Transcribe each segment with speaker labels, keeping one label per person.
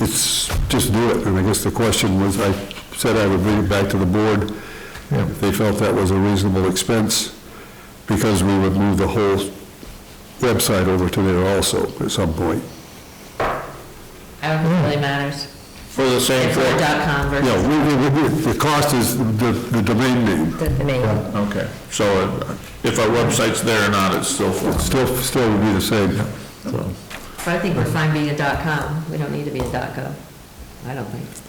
Speaker 1: it's, just do it. And I guess the question was, I said I would bring it back to the board
Speaker 2: Yeah.
Speaker 1: if they felt that was a reasonable expense, because we would move the whole website over to there also at some point.
Speaker 3: I don't think it really matters.
Speaker 4: For the same
Speaker 3: If we're
Speaker 4: thing?
Speaker 3: dot com versus
Speaker 1: Yeah, we, we, we, the cost is the, the domain name,
Speaker 3: the name.
Speaker 4: Okay, so uh, if our website's there or not, it's still for
Speaker 1: It's still, still would be the same.
Speaker 3: But I think we're fine being a dot com. We don't need to be a dot gov. I don't think.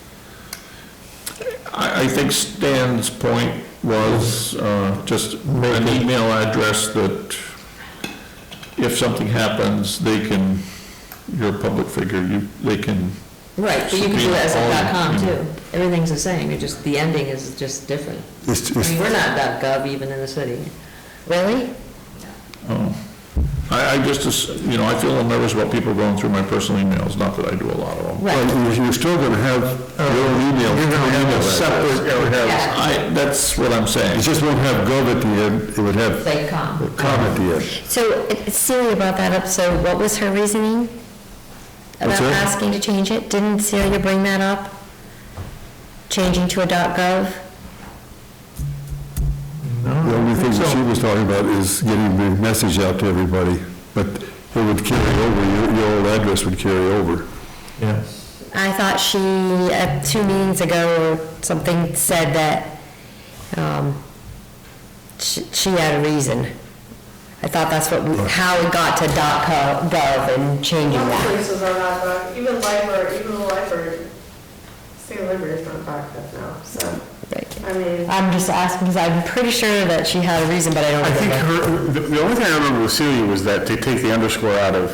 Speaker 4: I, I think Stan's point was, uh, just an email address that if something happens, they can, you're a public figure, you, they can,
Speaker 3: Right, but you can do it as a
Speaker 4: Screen
Speaker 3: dot com
Speaker 4: all-
Speaker 3: too. Everything's the same, you're just, the ending is just different.
Speaker 1: It's,
Speaker 3: I mean,
Speaker 1: it's,
Speaker 3: we're not dot gov even in the city. Really?
Speaker 4: oh. I, I just, as- you know, I feel a little nervous about people going through my personal emails, not that I do a lot of them.
Speaker 3: Right.
Speaker 1: well, you're- you're still gonna have your own email.
Speaker 4: You're gonna have a separate,
Speaker 3: Yeah.
Speaker 4: uh, I, that's what I'm saying.
Speaker 1: It just won't have gov at the end, it would have
Speaker 3: Like com.
Speaker 1: com at the end.
Speaker 5: So uh, Celia brought that up, so what was her reasoning?
Speaker 1: What's
Speaker 5: About
Speaker 1: that?
Speaker 5: asking to change it? Didn't Celia bring that up? Changing to a .gov?
Speaker 1: The only thing that she was talking about is getting the message out to everybody, but it would carry over, your, your old address would carry over.
Speaker 2: Yeah.
Speaker 5: I thought she, uh, two meetings ago, or something said that um, sh- she had a reason. I thought that's what, we- how it got to .co- .gov and changing
Speaker 6: Some
Speaker 5: that.
Speaker 6: places are not back, even library, even the library, state library is not back up now, so,
Speaker 5: Right.
Speaker 6: I mean,
Speaker 5: I'm just asking, because I'm pretty sure that she had a reason, but I don't
Speaker 7: I think
Speaker 5: remember.
Speaker 7: her, the- the only thing I remember with Celia was that they take the underscore out of,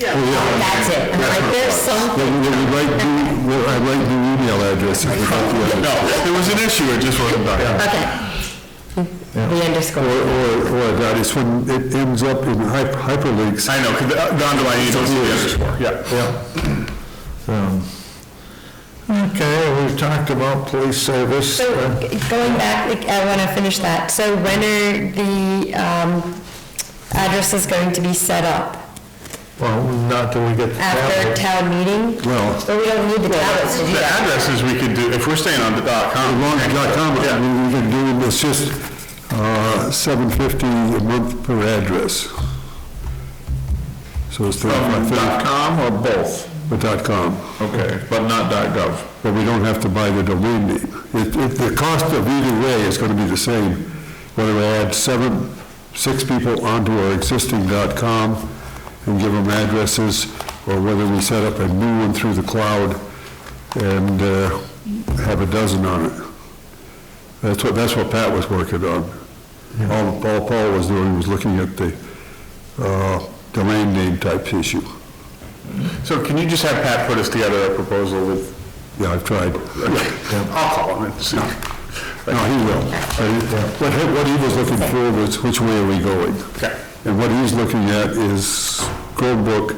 Speaker 7: Oh,
Speaker 6: yeah.
Speaker 5: That's it. I'm like, there's some
Speaker 1: But we would like, the- well, I'd like the email address if we got the other.
Speaker 7: no, there was an issue, it just wasn't done.
Speaker 5: Okay. The underscore.
Speaker 1: Or, or, or that is when it ends up in hyper- hyperlinks.
Speaker 7: I know, 'cause the the underlying is also the underscore, yeah.
Speaker 2: Um, Okay, we've talked about police service.
Speaker 5: So
Speaker 2: uh,
Speaker 5: g- going back, like, I want to finish that. So when are the um, addresses going to be set up?
Speaker 2: Well, not till we get to
Speaker 5: After
Speaker 2: that.
Speaker 5: town meeting?
Speaker 1: Well,
Speaker 5: But we don't need the tablets to do
Speaker 7: The
Speaker 5: that.
Speaker 7: addresses we could do, if we're staying on the dot
Speaker 1: as
Speaker 7: com.
Speaker 1: long as dot com, I mean, we can do, it's just, uh, seven fifty a month per address. So it's
Speaker 4: From
Speaker 1: thirty-five,
Speaker 4: dot com or both?
Speaker 1: but dot com.
Speaker 4: Okay, but not dot gov.
Speaker 1: but we don't have to buy the domain name. It, it, the cost of either way is gonna be the same, whether we add seven, six people onto our existing dot com and give them addresses, or whether we set up a new one through the cloud and, uh, have a dozen on it. That's what, that's what Pat was working on. All, all Paul was doing was looking at the, uh, domain name type issue.
Speaker 7: So can you just have Pat put us together a proposal with,
Speaker 1: Yeah, I've tried.
Speaker 7: I'll call him and see.
Speaker 1: No, he will. But he- what he was looking for was, which way are we going?
Speaker 7: Okay.
Speaker 1: And what he's looking at is Chromebook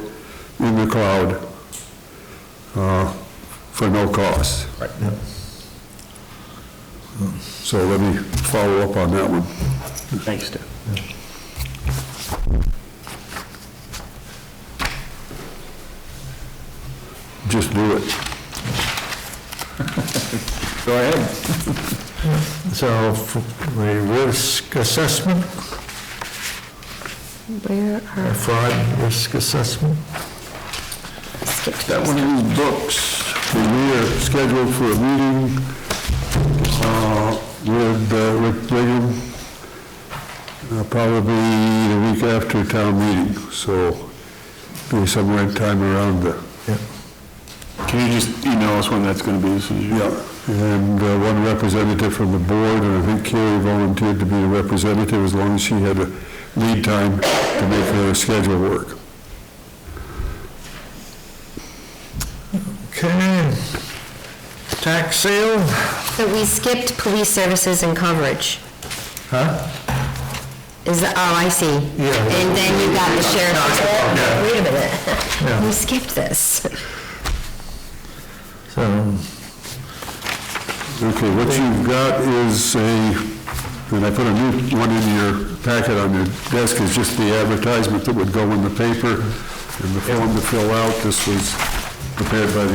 Speaker 1: in the cloud uh, for no cost.
Speaker 7: Right.
Speaker 1: So let me follow up on that one.
Speaker 7: Thanks, Dave.
Speaker 1: Just do it.
Speaker 7: Go ahead.
Speaker 2: So f- the risk assessment,
Speaker 5: Where
Speaker 2: uh,
Speaker 5: are,
Speaker 2: fraud risk assessment.
Speaker 5: skipped.
Speaker 1: That one of these books, that we are scheduled for a meeting uh, with uh, Rick Brigham, uh, probably the week after town meeting, so be somewhere in time around the,
Speaker 7: Can you just email us when that's going to be, as soon as you-
Speaker 1: yeah. And uh, one representative from the board, and I think Carrie volunteered to be the representative as long as she had a lead time to make her schedule work.
Speaker 2: Okay. Tax sale?
Speaker 5: So we skipped police services and coverage.
Speaker 2: Huh?
Speaker 5: Is, oh, I see.
Speaker 2: Yeah.
Speaker 5: And then you got the
Speaker 2: Yeah.
Speaker 5: sheriff. Wait a
Speaker 2: Yeah.
Speaker 5: minute. We skipped this.
Speaker 2: So,
Speaker 1: Okay, what you've got is a, and I put a new one in your packet on your desk, is just the advertisement that would go in the paper and the form to fill out. This was prepared by the